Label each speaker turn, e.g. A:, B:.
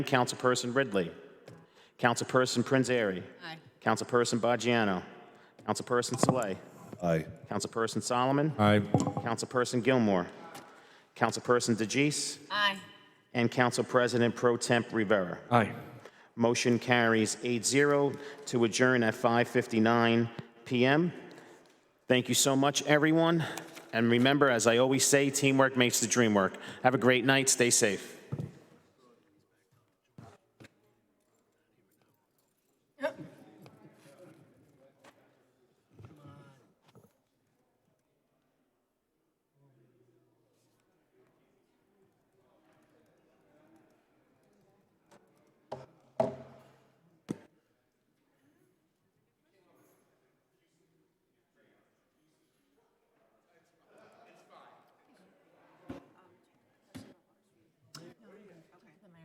A: Councilperson Ridley. Councilperson Prinzary.
B: Aye.
A: Councilperson Bajiano. Councilperson Saleh.
C: Aye.
A: Councilperson Solomon.
C: Aye.
A: Councilperson Gilmore. Councilperson DeJeece.
B: Aye.
A: And Council President Pro Temp Rivera.
C: Aye.
A: Motion carries 8-0 to adjourn at 5:59 PM. Thank you so much, everyone. And remember, as I always say, teamwork makes the dream work. Have a great night. Stay safe.